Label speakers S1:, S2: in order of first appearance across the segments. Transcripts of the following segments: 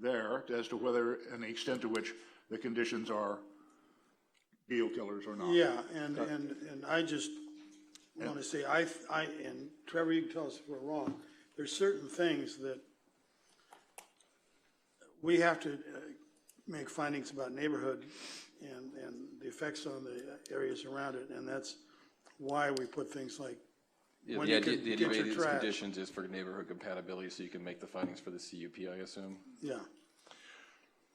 S1: there as to whether, and the extent to which the conditions are deal killers or not.
S2: Yeah, and, and, and I just want to say, I, I, and Trevor, you can tell us if we're wrong, there's certain things that we have to uh, make findings about neighborhood and, and the effects on the areas around it, and that's why we put things like,
S3: Yeah,
S2: when
S3: the
S2: you
S3: idea,
S2: can
S3: the
S2: get your
S3: idea of these
S2: trash.
S3: conditions is for neighborhood compatibility, so you can make the findings for the CUP, I assume?
S2: yeah,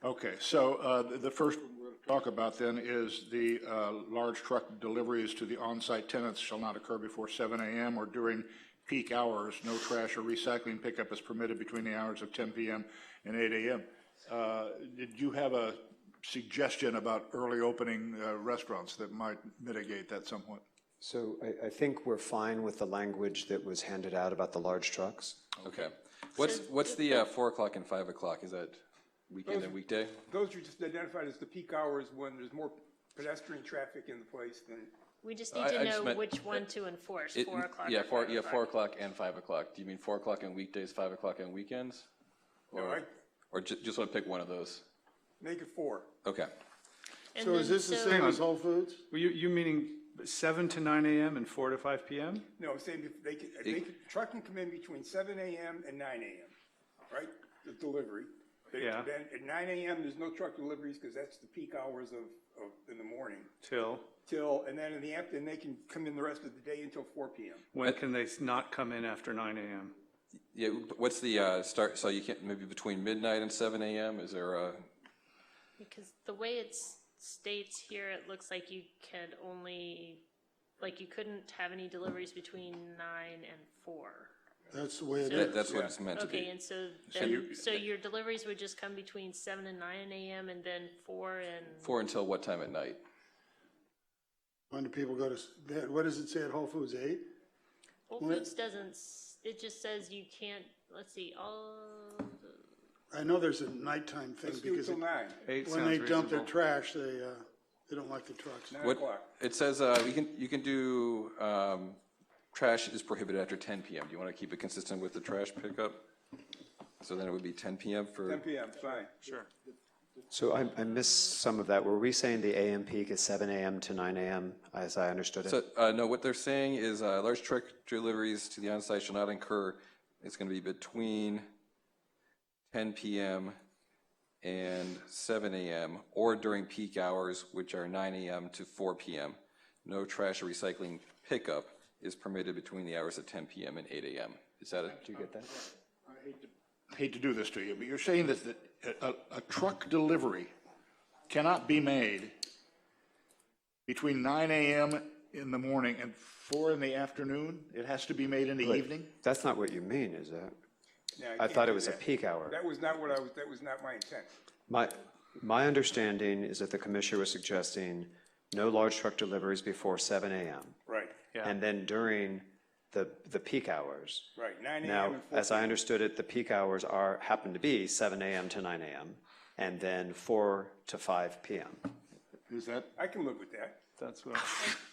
S1: Okay, so uh, the- the first one we're going to talk about then is the uh, large truck deliveries to the on-site tenants shall not occur before 7 AM or during peak hours. No trash or recycling pickup is permitted between the hours of 10 PM and 8 AM. Uh, Did you have a suggestion about early opening uh, restaurants that might mitigate that somewhat?
S4: So I, I think we're fine with the language that was handed out about the large trucks.
S3: Okay. What's, what's the uh, four o'clock and five o'clock? Is that weekend and weekday?
S5: Those are just identified as the peak hours when there's more pedestrian traffic in the place than,
S6: We just
S3: I-
S6: need
S3: I
S6: to
S3: just
S6: know
S3: meant-
S6: which one to enforce,
S3: It-
S6: four o'clock
S3: Yeah,
S6: or
S3: four,
S6: five
S3: yeah, four
S6: o'clock.
S3: o'clock and five o'clock. Do you mean four o'clock on weekdays, five o'clock on weekends?
S5: no, I,
S3: Or ju- just want to pick one of those?
S5: make it four.
S3: Okay.
S6: And
S2: so is
S6: then-
S2: this the
S6: so-
S2: same as Whole Foods?
S7: Well, you, you meaning seven to nine AM and four to five PM?
S5: No, I'm saying if they could, if they could, truck can come in between seven AM and nine AM, right? The delivery. They-
S7: Yeah.
S5: Then at nine AM, there's no truck deliveries because that's the peak hours of, of, in the morning.
S7: Till,
S5: Till, and then in the afternoon, they can come in the rest of the day until four PM.
S7: when can they not come in after nine AM?
S3: Yeah, but what's the uh, start, so you can't, maybe between midnight and seven AM? Is there a,
S6: Because the way it states here, it looks like you could only, like you couldn't have any deliveries between nine and four.
S2: That's the way it
S3: that-
S2: is.
S3: that's what it's meant to
S6: Okay,
S3: be?
S6: and so then, so your deliveries would just come between seven and nine AM and then four and,
S3: Four until what time at night?
S2: When do people go to, s- that- what does it say at Whole Foods, eight?
S6: Whole
S2: Well, it-
S6: Foods doesn't, s- it just says you can't, let's see, all,
S2: I know there's a nighttime thing
S5: Let's do it
S2: because
S5: till
S2: it-
S5: nine,
S7: Eight
S2: when they
S7: sounds
S2: dump their
S7: reasonable.
S2: trash, they, uh, they don't like the trucks.
S5: nine
S3: What,
S5: o'clock.
S3: it says, uh, you can, you can do, um, trash is prohibited after ten PM. Do you want to keep it consistent with the trash pickup? So then it would be ten PM
S5: Ten
S3: for,
S5: PM, fine.
S4: So I, I missed some of that. Were we saying the AM peak is seven AM to nine AM, as I understood it?
S3: so, uh, no, what they're saying is, uh, large truck deliveries to the onsite shall not incur, it's going to be between ten PM and seven AM, or during peak hours, which are nine AM to four PM. No trash or recycling pickup is permitted between the hours of ten PM and eight AM. Is that it? Do you get that?
S1: hate to do this to you, but you're saying that the- a, a- a truck delivery cannot be made between 9 AM in the morning and 4 in the afternoon? It has to be made in the
S4: But
S1: evening?
S4: That's not what you mean, is it?
S5: No,
S4: I
S5: can't
S4: thought
S5: do
S4: it was a
S5: that.
S4: peak hour.
S5: That was not what I was, that was not my intent.
S4: My, my understanding is that the commissioner was suggesting no large truck deliveries before seven AM.
S5: Right,
S4: And then during the, the peak hours.
S5: right, nine AM
S4: Now,
S5: and four.
S4: as I understood it, the peak hours are, happen to be seven AM to nine AM, and then four to five PM.
S1: Is that,
S5: I can live with that.
S7: That's what,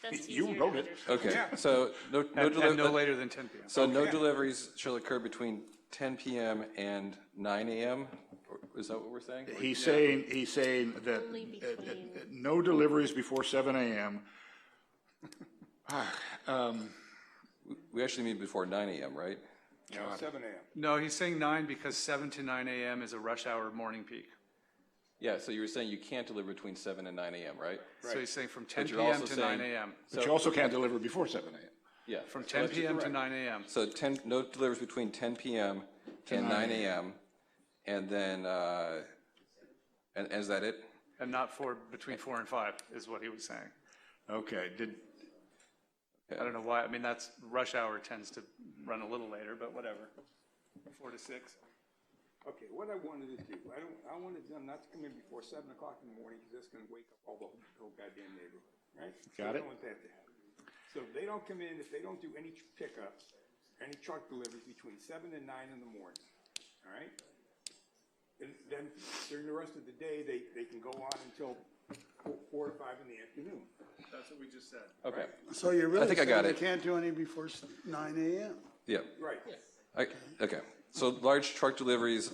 S6: that's easier
S1: you
S6: to
S1: wrote it.
S6: understand.
S3: Okay, so no, no,
S7: and and no
S3: deli-
S7: later than ten PM.
S3: so no deliveries shall occur between 10 PM and 9 AM? Or- Is that what we're saying? Or-
S1: He's saying, he's saying that
S6: Only between.
S1: uh, no deliveries before 7 AM.
S3: We actually mean before 9 AM, right?
S5: No, seven AM.
S7: No, he's saying nine because seven to nine AM is a rush hour morning peak.
S3: Yeah, so you were saying you can't deliver between 7 and 9 AM, right?
S7: So he's saying from ten
S3: you're
S7: PM
S3: also
S7: to nine
S3: saying-
S7: AM.
S1: But you also can't deliver before 7 AM.
S3: Yeah.
S7: From ten PM to nine AM.
S3: So 10, no deliveries between 10 PM and 9 AM, and then, uh, and and is that it?
S7: And not four, between four and five is what he was saying.
S1: Okay, did,
S7: I don't know why, I mean, that's, rush hour tends to run a little later, but whatever. Four to six.
S5: Okay, what I wanted to do, I don't, I wanted them not to come in before seven o'clock in the morning, because that's gonna wake up all the whole goddamn neighborhood, right?
S1: Got
S5: So I
S1: it.
S5: don't want that to happen. So if they don't come in, if they don't do any tr- pickups, any truck deliveries between seven and nine in the morning, all right? And then during the rest of the day, they, they can go on until four- four to five in the afternoon. That's what we just said.
S3: Okay,
S2: So you're really
S3: think I
S2: saying
S3: got
S2: they
S3: it.
S2: can't do any before s- nine AM?
S3: yeah.
S5: Right,
S3: I- Okay, so large truck deliveries